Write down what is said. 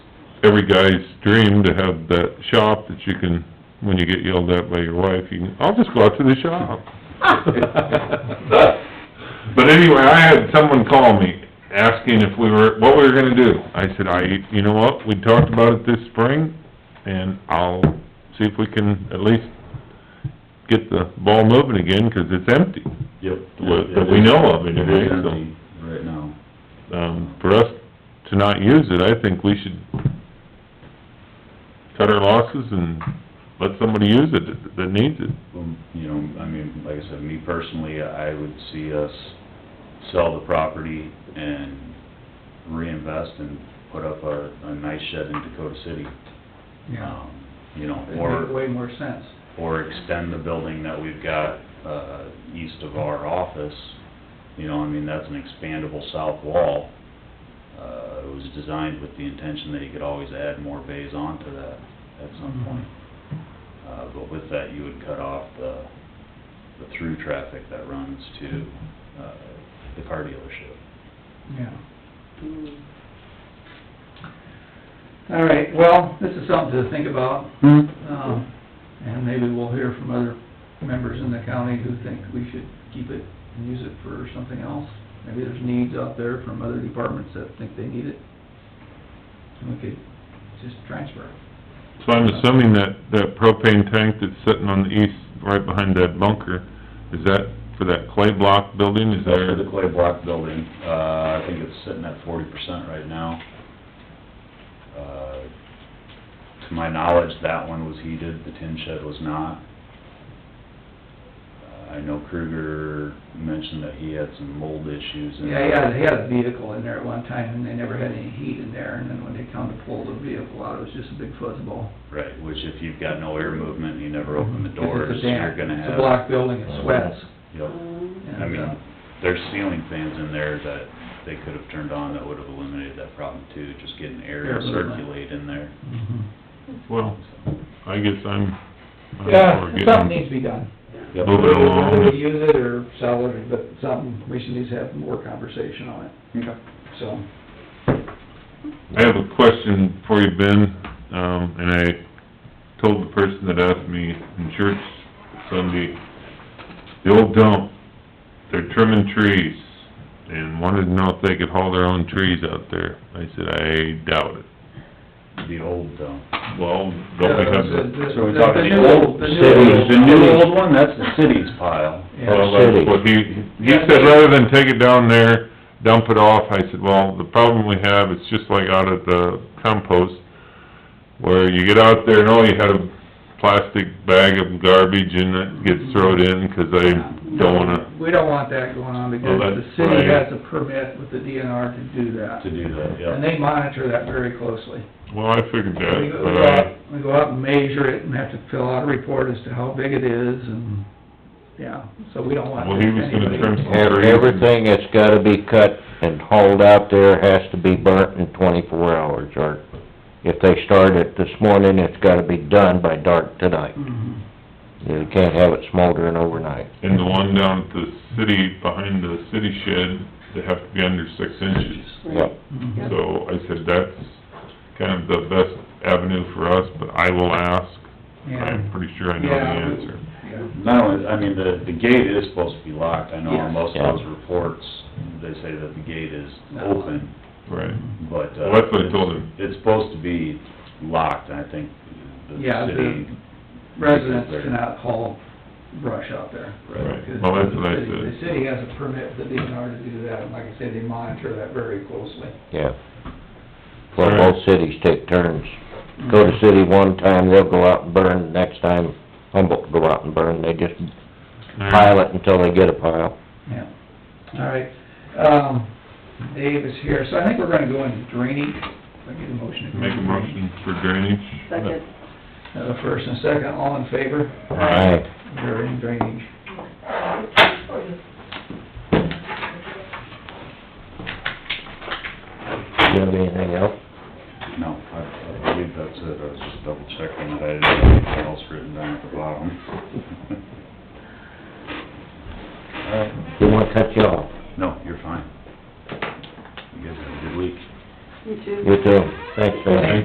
every guy's dream to have that shop that you can, when you get yelled at by your wife, you can, I'll just go out to the shop. But anyway, I had someone call me, asking if we were, what we were gonna do. I said, I, you know what, we talked about it this spring, and I'll see if we can at least get the ball moving again, 'cause it's empty. Yep. What- that we know of It anyway, is so. empty Right now. Um, for us to not use it, I think we should cut our losses and let somebody use it that- that needs it. Um, You know, I mean, like I said, me personally, I would see us sell the property and reinvest and put up a, a nice shed in Dakota City. Yeah, Um, You know, it'd or... make way more sense. or extend the building that we've got, uh, east of our office. You know, I mean, that's an expandable south wall. Uh, it was designed with the intention that you could always add more bays onto that at some point. Uh, but with that, you would cut off the, the through traffic that runs to, uh, the car dealership. Yeah. All right, well, this is something to think about, um, and maybe we'll hear from other members in the county who think we should keep it and use it for something else. Maybe there's needs out there from other departments that think they need it, and we could just transfer it. So I'm assuming that, that propane tank that's sitting on the east, right behind that bunker, is that for that clay block building, is That's for there? the clay block building, uh, I think it's sitting at forty percent right now. Uh, to my knowledge, that one was heated, the tin shed was not. Uh, I know Kruger mentioned that he had some mold issues in Yeah, yeah, they had a vehicle in there at one time, and they never had any heat in there, and then when they come to pull the vehicle out, it was just a big fuzzball. Right, which if you've got no air movement, and you never open the Because doors, it's a you're damp, gonna have. Uh, It's a block building, it sweats. Yep. and, I uh, mean, there's ceiling fans in there that they could have turned on that would have eliminated that problem too, just getting air Air to movement. circulate in there. mhm. Well, I guess I'm, I'm for Yeah, something getting, um, needs to be done. Yep. Move it along. Whether we use it or sell it, but something, we should at least have more conversation on it, Okay. so. I have a question for you, Ben, um, and I told the person that asked me in church Sunday, the old dump, they're trimming trees, and wanted to know if they could haul their own trees out there. I said, I doubt it. The old, um... Well, don't we have the... The- the- So we're the- talking new- the old the new- city. The new old one, that's the city's pile. Yeah, Well, that's what he, he said, rather than take it down there, dump it off, I said, well, the problem we have, it's just like out at the compost, where you get out there and oh, you had a plastic bag of garbage and that gets thrown in, 'cause I don't wanna, We don't want that going on, because Well, that's the city right. has a permit with the DNR to do that. To do that, And yeah. they monitor that very closely. well, I figured We that, go but uh, we go I, out, we go out and measure it and have to fill out a report as to how big it is and, yeah, so we don't want. well, he was gonna anybody- trim some And trees. everything that's gotta be cut and hauled out there has to be burnt in twenty-four hours, or if they start it this morning, it's gotta be done by dark tonight. Mhm. You can't have it smoldering overnight. And the one down at the city, behind the city shed, they have to be under six inches. Yep. Mhm. So I said, that's kind of the best avenue for us, but I will ask. Yeah, I'm pretty sure I know the Yeah. answer. yeah. Not only, I mean, the, the gate is supposed to be locked, I know on Yes. most Yeah. of those reports, they say that the gate is No. open, Right. Mm-hmm. but, uh... Well, that's what I told him. It's supposed to be locked, and I think the Yeah, the- city... Residents cannot haul brush out there. Right. because Well, that's what I the city- said. The city has a permit for the DNR to do that, and like I say, they monitor that very closely. Yeah. Well, Alright. both cities take turns. Go to city one time, they'll go out and burn, next time Humboldt will go out and burn, they just pile it until they get a pile. Yeah, all right. Um, Dave is here, so I think we're gonna go into drainage. If I get a motion. to go Make a into motion for drainage. Second. drainage. Have a first and a second, all in favor? Aye. We're in drainage. Do you have anything else? No, I, I believe that's it, I was just double checking that I didn't have anything else written down at the bottom. All right. Didn't wanna cut you off. No, you're fine. You guys have a good week. You too. You too. Thanks, Randy.